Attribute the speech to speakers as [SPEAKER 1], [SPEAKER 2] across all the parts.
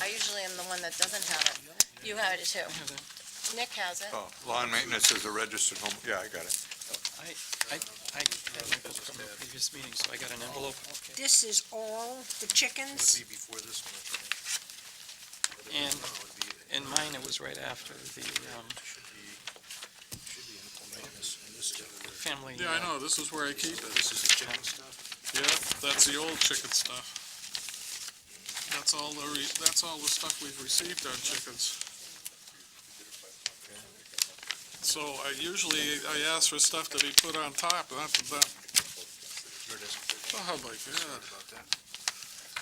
[SPEAKER 1] I usually am the one that doesn't have it. You have it too. Nick has it.
[SPEAKER 2] Oh, lawn maintenance is a registered home, yeah, I got it.
[SPEAKER 3] I had Michael's from a previous meeting, so I got an envelope,
[SPEAKER 4] This is all the chickens?
[SPEAKER 5] Would be before this one, I think.
[SPEAKER 3] And-
[SPEAKER 5] No, it would be- it
[SPEAKER 3] and mine, it was right after the um,
[SPEAKER 5] Should be, should be in this, in this other-
[SPEAKER 3] family. uh,
[SPEAKER 6] Yeah, I know, this is where I keep it.
[SPEAKER 5] This is the chicken stuff?
[SPEAKER 6] Yeah, that's the old chicken stuff. That's all the, re- that's all the stuff we've received on chickens. So I usually, I ask for stuff to be put on top, not to, not,
[SPEAKER 5] Here it is.
[SPEAKER 6] oh my god.
[SPEAKER 5] About that.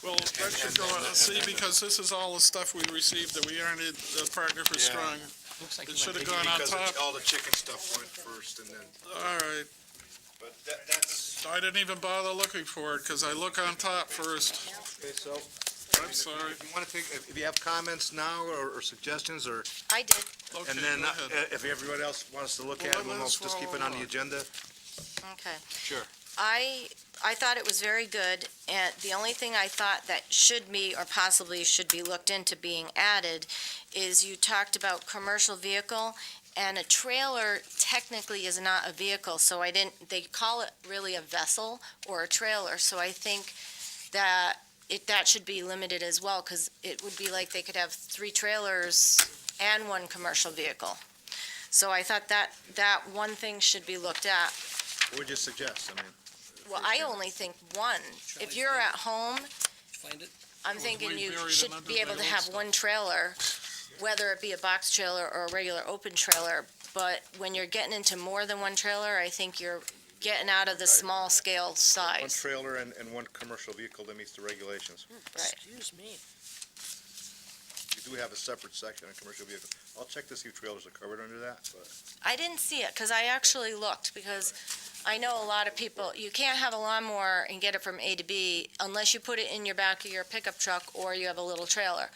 [SPEAKER 6] Well, that should go, out- see, because this is all the stuff we received that we aren't in the partner for
[SPEAKER 5] Yeah.
[SPEAKER 6] strong.
[SPEAKER 3] Looks like
[SPEAKER 6] It
[SPEAKER 3] you
[SPEAKER 6] should
[SPEAKER 3] went big-
[SPEAKER 6] have gone on
[SPEAKER 5] Because
[SPEAKER 6] top.
[SPEAKER 5] it's- all the chicken stuff went first and then,
[SPEAKER 6] All right,
[SPEAKER 5] but that, that's.
[SPEAKER 6] I didn't even bother looking for it, cause I look on top first.
[SPEAKER 7] Okay, so
[SPEAKER 6] I'm sorry.
[SPEAKER 7] if you want to take, if if you have comments now or or suggestions or,
[SPEAKER 1] I did.
[SPEAKER 6] Okay,
[SPEAKER 7] and then
[SPEAKER 6] go
[SPEAKER 7] uh,
[SPEAKER 6] ahead.
[SPEAKER 7] if everyone else wants to look
[SPEAKER 6] Well,
[SPEAKER 7] at
[SPEAKER 6] let-
[SPEAKER 7] it, we'll
[SPEAKER 6] let's
[SPEAKER 7] just keep it
[SPEAKER 6] follow
[SPEAKER 7] on the
[SPEAKER 6] along.
[SPEAKER 7] agenda.
[SPEAKER 1] Okay.
[SPEAKER 7] Sure.
[SPEAKER 1] I, I thought it was very good, and the only thing I thought that should be, or possibly should be looked into being added, is you talked about commercial vehicle, and a trailer technically is not a vehicle, so I didn't, they call it really a vessel or a trailer, so I think that it, that should be limited as well, because it would be like they could have three trailers and one commercial vehicle. So I thought that, that one thing should be looked at,
[SPEAKER 7] What would you suggest? I mean,
[SPEAKER 1] well, I only think one. If you're at home,
[SPEAKER 8] Find it?
[SPEAKER 1] I'm
[SPEAKER 6] was
[SPEAKER 1] thinking
[SPEAKER 6] way
[SPEAKER 1] you
[SPEAKER 6] buried in
[SPEAKER 1] should
[SPEAKER 6] under
[SPEAKER 1] be able
[SPEAKER 6] my
[SPEAKER 1] to
[SPEAKER 6] old
[SPEAKER 1] have
[SPEAKER 6] stuff.
[SPEAKER 1] one trailer, whether it be a box trailer or a regular open trailer. But when you're getting into more than one trailer, I think you're getting out of the small scale
[SPEAKER 7] one
[SPEAKER 1] size.
[SPEAKER 7] trailer and, and one commercial vehicle that meets the regulations.
[SPEAKER 1] Right.
[SPEAKER 8] Excuse me.
[SPEAKER 7] You do have a separate section on commercial vehicle. I'll check to see if trailers are covered under that, but
[SPEAKER 1] I didn't see it, because I actually looked, because I know a lot of people, you can't have a lawnmower and get it from A to B unless you put it in your back of your pickup truck or you have a little trailer.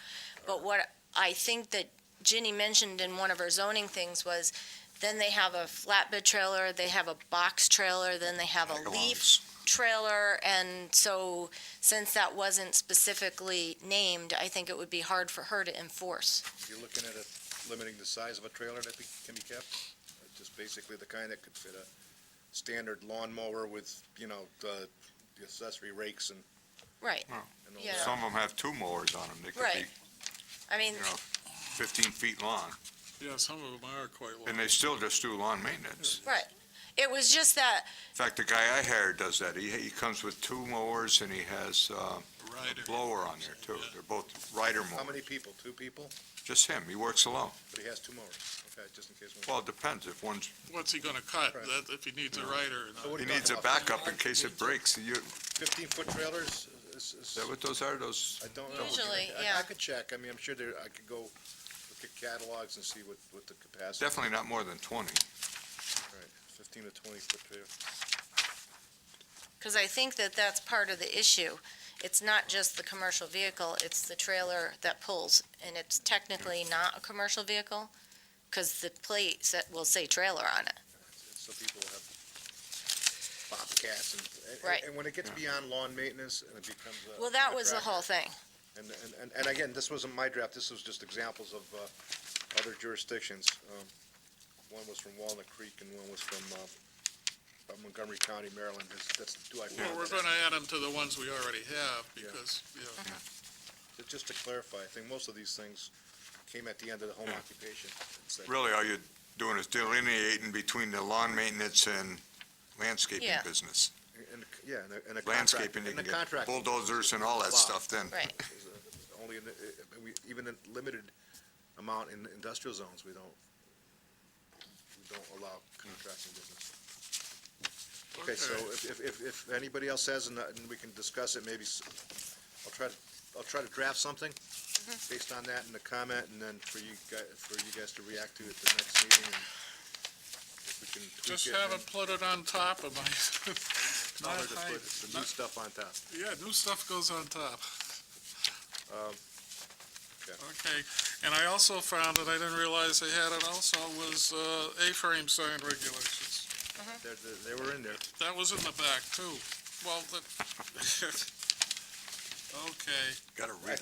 [SPEAKER 1] But what I think that Ginny mentioned in one of her zoning things was, then they have a flatbed trailer, they have a box trailer, then they have a leaf trailer, and so, since that wasn't specifically named, I think it would be hard for her to enforce.
[SPEAKER 7] you're looking at it limiting the size of a trailer that be- can be kept. uh, Just basically the kind that could fit a standard lawnmower with, you know, the the accessory rakes and.
[SPEAKER 1] Right,
[SPEAKER 7] and all
[SPEAKER 1] Yeah.
[SPEAKER 7] that.
[SPEAKER 2] Some of them have two mowers on them, they could be
[SPEAKER 1] uh, Right. I mean,
[SPEAKER 2] You know, fifteen feet long,
[SPEAKER 6] Yeah, some of them are quite long.
[SPEAKER 2] and they still just do lawn maintenance.
[SPEAKER 1] it was just that
[SPEAKER 2] In fact, the guy I hired does that, he, he comes with two mowers and he has, uh,
[SPEAKER 6] Rider.
[SPEAKER 2] a blower on there too, they're both rider
[SPEAKER 7] How
[SPEAKER 2] mowers,
[SPEAKER 7] many people? Two people?
[SPEAKER 2] just him, he works alone.
[SPEAKER 7] But he has two mowers. Okay, just in case. one-
[SPEAKER 2] Well, it depends, if one's,
[SPEAKER 6] What's he gonna cut,
[SPEAKER 7] Right.
[SPEAKER 6] that, if he needs a rider or
[SPEAKER 7] So
[SPEAKER 6] not?
[SPEAKER 7] what
[SPEAKER 2] he
[SPEAKER 7] are you
[SPEAKER 2] needs a
[SPEAKER 7] talking about?
[SPEAKER 2] backup in case it breaks, you, is
[SPEAKER 7] Fifteen-foot trailers is, is,
[SPEAKER 2] that what those are, those?
[SPEAKER 7] I don't know.
[SPEAKER 1] Usually,
[SPEAKER 7] I-
[SPEAKER 1] yeah.
[SPEAKER 7] I could check. I mean, I'm sure there, I could go look at catalogs and see what, what the capacity.
[SPEAKER 2] Definitely not more than twenty.
[SPEAKER 7] Right, Fifteen to twenty-foot trailer.
[SPEAKER 1] Because I think that that's part of the issue. It's not just the commercial vehicle, it's the trailer that pulls, and it's technically not a commercial vehicle, because the plate sa- will say trailer on it.
[SPEAKER 7] So people will have bobcats and. and-
[SPEAKER 1] Right.
[SPEAKER 7] And when it gets beyond lawn maintenance and it becomes a.
[SPEAKER 1] Well, that was the whole
[SPEAKER 7] contractor.
[SPEAKER 1] thing.
[SPEAKER 7] And, and- and, and again, this wasn't my draft, this was just examples of, uh, other jurisdictions. Um, One was from Walnut Creek and one was from, uh, uh, Montgomery County, Maryland, That's- that's the two I
[SPEAKER 6] Well, we're
[SPEAKER 7] found.
[SPEAKER 6] gonna add them to the ones we already have, because, yeah,
[SPEAKER 7] Ju- Just to clarify, I think most of these things came at the end of the home
[SPEAKER 2] Yeah.
[SPEAKER 7] occupation. It's like-
[SPEAKER 2] Really, all you're doing is delineating between the lawn maintenance and landscaping
[SPEAKER 1] Yeah.
[SPEAKER 2] business.
[SPEAKER 7] and- Yeah, and a- and a contract.
[SPEAKER 2] Landscaping, you
[SPEAKER 7] and a
[SPEAKER 2] can get
[SPEAKER 7] contract
[SPEAKER 2] bulldozers and all that
[SPEAKER 7] Wow.
[SPEAKER 2] stuff then.
[SPEAKER 1] Right.
[SPEAKER 7] is, uh, Only in, the- uh, we, even in limited amount in industrial zones, we don't, we don't allow contracting business. Okay, so
[SPEAKER 6] okay.
[SPEAKER 7] if, if- if, if anybody else has, and uh, and we can discuss it, maybe, s- I'll try to, I'll try to draft something
[SPEAKER 6] Mm-hmm.
[SPEAKER 7] based on that and the comment, and then for you guys, for you guys to react to at the next meeting, and if we can tweak it.
[SPEAKER 6] Just
[SPEAKER 7] and
[SPEAKER 6] have
[SPEAKER 7] then-
[SPEAKER 6] it put it on top of my,
[SPEAKER 7] No,
[SPEAKER 6] not
[SPEAKER 7] they're just
[SPEAKER 6] hide-
[SPEAKER 7] put the new
[SPEAKER 6] not-
[SPEAKER 7] stuff on top.
[SPEAKER 6] yeah, new stuff goes on top.
[SPEAKER 7] Um, okay.
[SPEAKER 6] Okay, and I also found, and I didn't realize they had it also, was, uh, A-frame sign regulations.
[SPEAKER 7] They're, they're- they were in there.
[SPEAKER 6] That was in the back, too. Well, the, okay.
[SPEAKER 2] Gotta read